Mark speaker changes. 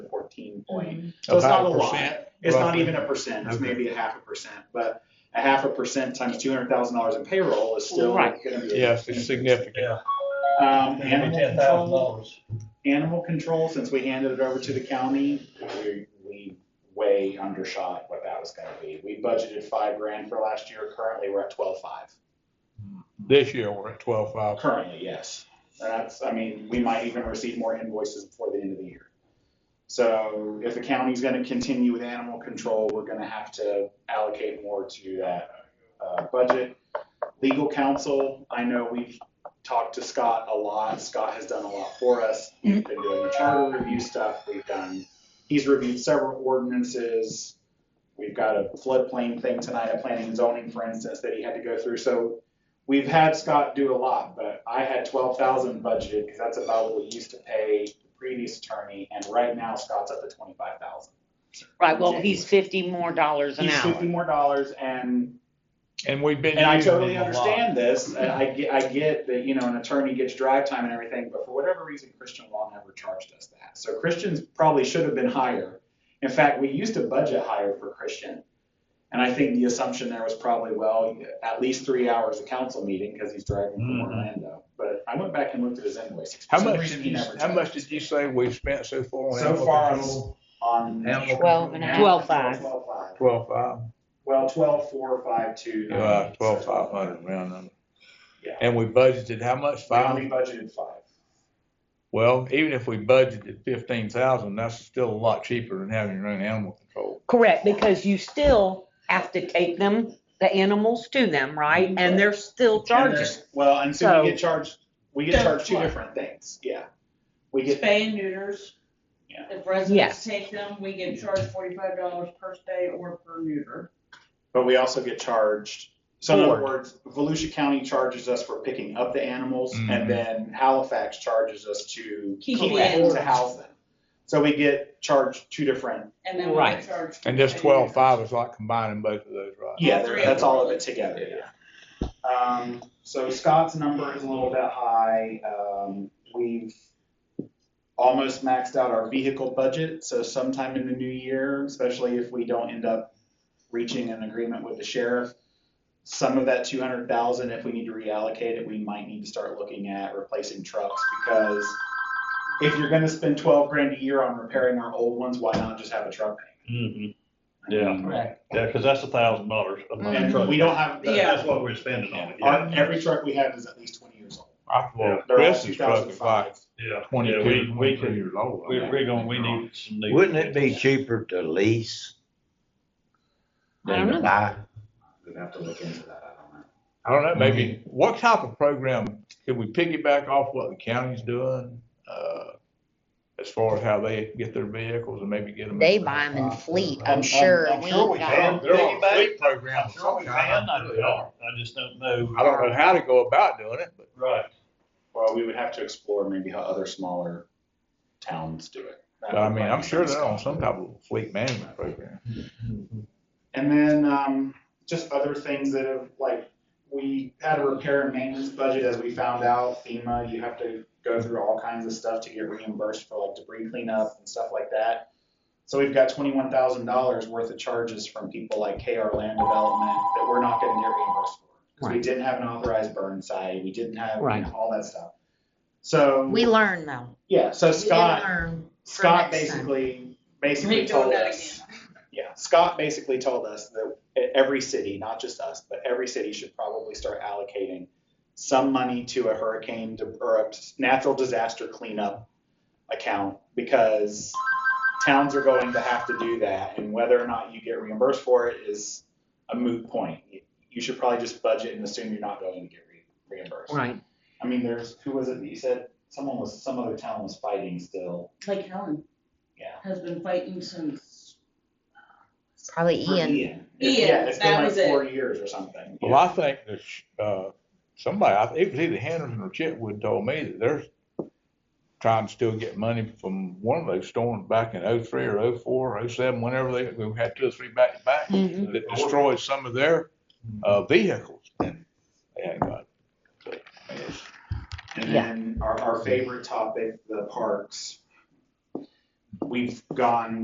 Speaker 1: decision point. So
Speaker 2: Of
Speaker 1: it's not
Speaker 2: how
Speaker 1: a lot.
Speaker 2: percent,
Speaker 1: It's not
Speaker 2: roughly?
Speaker 1: even a percent, it's
Speaker 2: Okay.
Speaker 1: maybe a half a percent, but a half a percent times two hundred thousand dollars in payroll is still gonna
Speaker 3: Right.
Speaker 1: be.
Speaker 2: Yes, it's significant.
Speaker 1: Um, animal
Speaker 4: ten thousand
Speaker 1: control,
Speaker 4: dollars.
Speaker 1: animal control, since we handed it over to the county, we, we way undershot what that was gonna be. We budgeted five grand for last year, currently we're at twelve-five.
Speaker 2: This year, we're at twelve five.
Speaker 1: Uh, Currently, yes. That's, I mean, we might even receive more invoices before the end of the year. So if the county's gonna continue with animal control, we're gonna have to allocate more to that, uh, budget. Legal counsel, I know we've talked to Scott a lot. Scott has done a lot for us. We've been doing the charter review stuff. We've done, he's reviewed several ordinances. We've got a floodplain thing tonight, a planning and zoning, for instance, that he had to go through. So we've had Scott do a lot, but I had twelve thousand budgeted because that's about what we used to pay the previous attorney, and right now Scott's up to twenty-five thousand.
Speaker 3: Right, well, he's fifty more dollars an
Speaker 1: He's fifty
Speaker 3: hour.
Speaker 1: more dollars, and
Speaker 2: And we've been.
Speaker 1: and I
Speaker 2: using
Speaker 1: totally
Speaker 2: them a lot.
Speaker 1: understand this, and I get, I get that, you know, an attorney gets drive time and everything, but for whatever reason, Christian law never charged us that. So Christian's probably should have been higher. In fact, we used to budget higher for Christian. And I think the assumption there was probably, well, at least three hours of council meeting, because he's driving from
Speaker 2: Mhm.
Speaker 1: Orlando. But I went back and looked at his invoices. For
Speaker 2: How
Speaker 1: some
Speaker 2: much,
Speaker 1: reason,
Speaker 2: did
Speaker 1: he
Speaker 2: you-
Speaker 1: never
Speaker 2: how
Speaker 1: charged
Speaker 2: much
Speaker 1: us.
Speaker 2: did you say we've spent so far on
Speaker 1: So
Speaker 2: animal
Speaker 1: far,
Speaker 2: control?
Speaker 1: on.
Speaker 4: Animal
Speaker 3: Twelve and a half. Twelve five.
Speaker 1: Twelve five.
Speaker 2: Twelve five,
Speaker 1: Well, twelve, four, five, two. nine,
Speaker 2: uh,
Speaker 1: eight.
Speaker 2: twelve five hundred, round number.
Speaker 1: Yeah.
Speaker 2: And we budgeted how much?
Speaker 1: We only
Speaker 2: Five?
Speaker 1: budgeted five.
Speaker 2: Well, even if we budgeted fifteen thousand, that's still a lot cheaper than having your own animal control.
Speaker 3: Correct, because you still have to take them, the animals to them, right? And they're still
Speaker 1: And
Speaker 3: charges.
Speaker 1: there's- Well, and so we
Speaker 3: So-
Speaker 1: get charged, we get
Speaker 5: Yeah,
Speaker 1: charged two
Speaker 5: what?
Speaker 1: different things, yeah. We get,
Speaker 5: Spay and neuters.
Speaker 1: Yeah.
Speaker 5: If
Speaker 3: Yes.
Speaker 5: residents take them, we get charged forty-five dollars per stay or per neuter.
Speaker 1: but we also get charged, so in other
Speaker 3: Board.
Speaker 1: words, Volusia County charges us for picking up the animals,
Speaker 2: Mhm.
Speaker 1: and then Halifax charges us to
Speaker 5: Mm-hmm. Keep
Speaker 1: collect-
Speaker 5: the animals.
Speaker 1: To house them. So we get charged two different,
Speaker 5: And then we
Speaker 3: Right.
Speaker 5: get charged.
Speaker 2: And this
Speaker 5: for
Speaker 2: twelve
Speaker 5: pay
Speaker 2: five is like combining both of those, right?
Speaker 1: yeah,
Speaker 5: three
Speaker 1: there-
Speaker 5: of
Speaker 1: that's
Speaker 5: them.
Speaker 1: all of it together, yeah. Um, so Scott's number is a little bit high, um, we've almost maxed out our vehicle budget, so sometime in the new year, especially if we don't end up reaching an agreement with the sheriff, some of that two hundred thousand, if we need to reallocate it, we might need to start looking at replacing trucks, because if you're gonna spend twelve grand a year on repairing our old ones, why not just have a truck
Speaker 6: Mm-hmm,
Speaker 1: payment?
Speaker 5: neuter. Correct.
Speaker 6: yeah, because that's a thousand dollars a month.
Speaker 1: And we don't have,
Speaker 5: Yeah.
Speaker 6: That's what we're spending on it,
Speaker 1: our,
Speaker 6: yeah.
Speaker 1: every truck we have is at least twenty years old.
Speaker 2: I
Speaker 6: Yeah.
Speaker 2: thought
Speaker 1: They're all
Speaker 2: Chris's truck is like
Speaker 1: 2005.
Speaker 6: Yeah, yeah,
Speaker 2: twenty-two,
Speaker 6: we, we
Speaker 2: twenty-three
Speaker 6: could,
Speaker 2: years old.
Speaker 6: we, we're gonna, we need some new.
Speaker 4: Wouldn't it be cheaper to lease
Speaker 3: I don't
Speaker 4: than to
Speaker 3: know.
Speaker 4: buy?
Speaker 1: We'd have to look into that, I don't know.
Speaker 2: I don't know, maybe, what type of program, could we piggyback off what the county's doing? uh, As far as how they get their vehicles and maybe get them.
Speaker 7: They buy them in fleet,
Speaker 2: I'm-
Speaker 1: Um,
Speaker 7: I'm sure.
Speaker 6: I'm
Speaker 7: We
Speaker 6: sure
Speaker 7: ain't
Speaker 6: we
Speaker 7: got-
Speaker 6: can.
Speaker 2: They're on a fleet program.
Speaker 6: I'm sure we can, I know they are. I just don't know.
Speaker 2: I don't know how to go about doing it, but
Speaker 6: Right,
Speaker 1: Well, we would have to explore maybe how other smaller towns do it.
Speaker 2: but I mean, I'm sure they're on some type of fleet management program.
Speaker 1: And then, um, just other things that have, like, we had a repair and maintenance budget, as we found out, FEMA, you have to go through all kinds of stuff to get reimbursed for like debris cleanup and stuff like that. So we've got twenty-one thousand dollars worth of charges from people like KR Land Development that we're not gonna get reimbursed for. Because we
Speaker 3: Right.
Speaker 1: didn't have an authorized burn site, we didn't have, you know,
Speaker 3: Right.
Speaker 1: all that stuff. So.
Speaker 7: We learn though.
Speaker 1: Yeah, so
Speaker 7: We
Speaker 1: Scott,
Speaker 7: learn for
Speaker 1: Scott
Speaker 7: next time.
Speaker 1: basically,
Speaker 5: We
Speaker 1: basically
Speaker 5: ain't doing
Speaker 1: told
Speaker 5: that
Speaker 1: us. Yeah, Scott basically told us that e- every city, not just us, but every city should probably start allocating some money to a hurricane de- or a natural disaster cleanup account because towns are going to have to do that, and whether or not you get reimbursed for it is a moot point. You should probably just budget and assume you're not going to get re- reimbursed.
Speaker 3: Right.
Speaker 1: I mean, there's who was it that you said someone was some other town was fighting still.
Speaker 5: again. Lake Helen
Speaker 1: Yeah.
Speaker 5: has been fighting since,
Speaker 7: Probably
Speaker 1: For
Speaker 7: Ian.
Speaker 5: Ian,
Speaker 1: yeah, it's been
Speaker 5: that
Speaker 1: like
Speaker 5: was
Speaker 1: four
Speaker 5: it.
Speaker 1: years or something.
Speaker 2: Well, I think that, sh- uh, somebody, I think it was either Henderson or Chitwood told me that they're trying to still get money from one of those storms back in oh three or oh four, oh seven, whenever they, we had two or three back to back.
Speaker 3: Mhm.
Speaker 2: that destroyed some of their uh, vehicles. And uh, they hadn't got.
Speaker 1: And
Speaker 7: Yeah.
Speaker 1: then our, our favorite topic, the parks. We've gone